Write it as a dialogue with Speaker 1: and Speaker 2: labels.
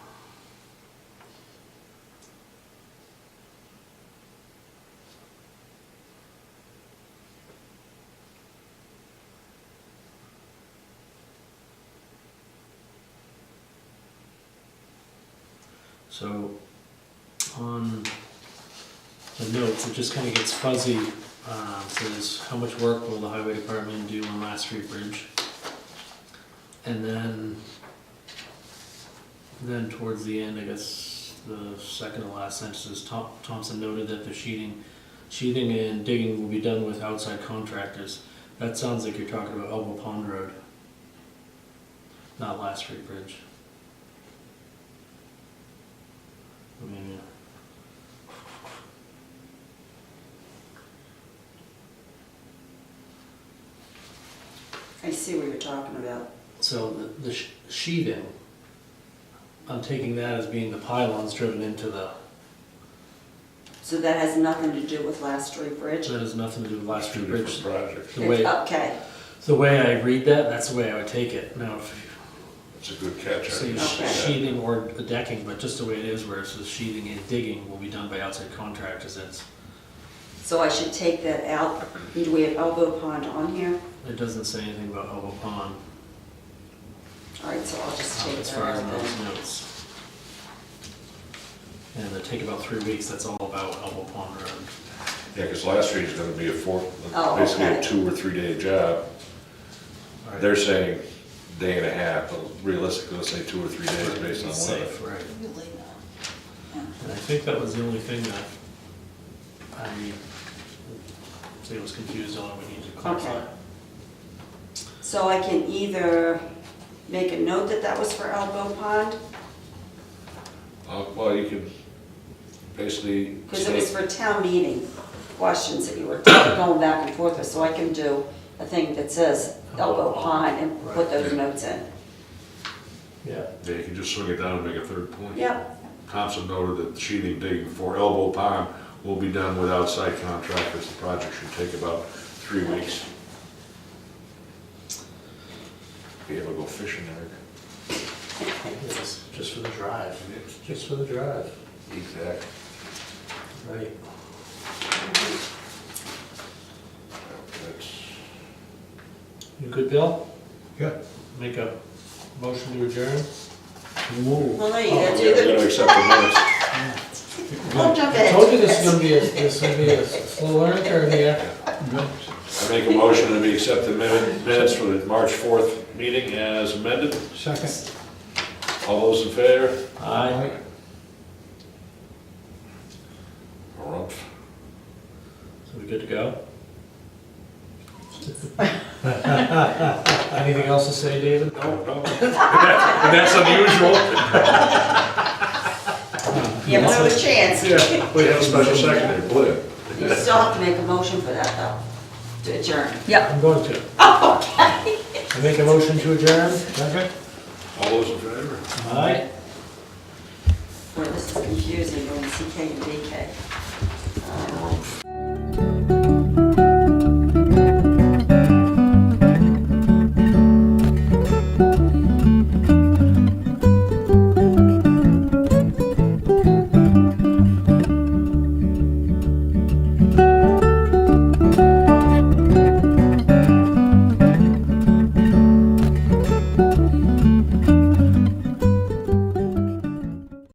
Speaker 1: So on the notes, it just kind of gets fuzzy. Um, Says, how much work will the highway department do on Last Street Bridge? And then, then towards the end, I guess, the second to last sentence is Thom- Thompson noted that the sheeting, sheathing and digging will be done with outside contractors. That sounds like you're talking about Elbow Pond Road, not Last Street Bridge. I mean,
Speaker 2: I see what you're talking about.
Speaker 1: So the, the sh- sheathing, I'm taking that as being the pylons driven into the,
Speaker 2: So that has nothing to do with Last Street Bridge?
Speaker 1: that has nothing to do with last
Speaker 3: Two
Speaker 1: year's
Speaker 3: different
Speaker 1: bridge.
Speaker 3: projects.
Speaker 1: The way,
Speaker 2: Okay,
Speaker 1: the way I read that, that's the way I would take it. Now, if
Speaker 3: It's a good catch. I
Speaker 1: you say
Speaker 3: didn't
Speaker 1: sh-
Speaker 3: see that.
Speaker 1: sheathing or the decking, but just the way it is, where it says sheathing and digging will be done by outside contractors, it's,
Speaker 2: so I should take that out. Do we have Elbow Pond on here?
Speaker 1: it doesn't say anything about Hobo Pond
Speaker 2: All right, so I'll just
Speaker 1: um,
Speaker 2: take
Speaker 1: as
Speaker 2: that
Speaker 1: far as
Speaker 2: out
Speaker 1: those
Speaker 2: then.
Speaker 1: notes. And it'll take about three weeks, that's all about Hobo Pond Road.
Speaker 3: Yeah, because last week's gonna be a four,
Speaker 2: Oh,
Speaker 3: basically a
Speaker 2: okay.
Speaker 3: two or three day job.
Speaker 1: All right.
Speaker 3: They're saying day and a half, but realistically, let's say two or three days based
Speaker 1: It's
Speaker 3: on weather.
Speaker 1: Safe, right.
Speaker 2: Really
Speaker 1: And I think that was the only thing that I say was confused on, we need to clarify.
Speaker 2: Okay. So I can either make a note that that was for Elbow Pond,
Speaker 3: Uh, Well, you can basically
Speaker 2: because it was
Speaker 3: state,
Speaker 2: for town meeting questions that you were going back and forth with, so I can do a thing that says Elbow Pond and put those notes in.
Speaker 1: Yeah.
Speaker 4: Yeah, you can just swing it down and make a third point.
Speaker 2: Yep,
Speaker 4: Thompson noted that sheathing digging for Elbow Pond will be done with outside contractors. The project should take about three weeks.
Speaker 3: be able to go fishing there.
Speaker 1: Yes, Just for the drive, just for the drive.
Speaker 3: Exactly.
Speaker 1: Right.
Speaker 3: That's-
Speaker 1: You good, Bill?
Speaker 4: Yeah.
Speaker 1: Make a motion to adjourn? Whoa.
Speaker 2: well, there you
Speaker 3: Oh,
Speaker 2: go,
Speaker 3: yeah,
Speaker 2: do
Speaker 3: We gotta
Speaker 2: the,
Speaker 3: accept the minutes.
Speaker 2: don't jump in.
Speaker 5: I told you this is gonna be a, this is gonna be a slow learner turn here.
Speaker 3: I make a motion that we accept the min- minutes for the March 4th meeting as amended.
Speaker 5: Second.
Speaker 3: All those in favor?
Speaker 1: Aye.
Speaker 3: Rumpf.
Speaker 1: So we good to go?
Speaker 5: Anything else to say, David?
Speaker 3: No, no. That's unusual.
Speaker 2: You have another chance.
Speaker 3: Yeah, we have a special secretary, Blue.
Speaker 2: You still have to make a motion for that, though, to adjourn.
Speaker 5: I'm going to. I make a motion to adjourn? Second.
Speaker 3: All those in favor?
Speaker 1: Aye.
Speaker 2: Boy, this is confusing, going CK and DK. Uh,
Speaker 3: Rumpf.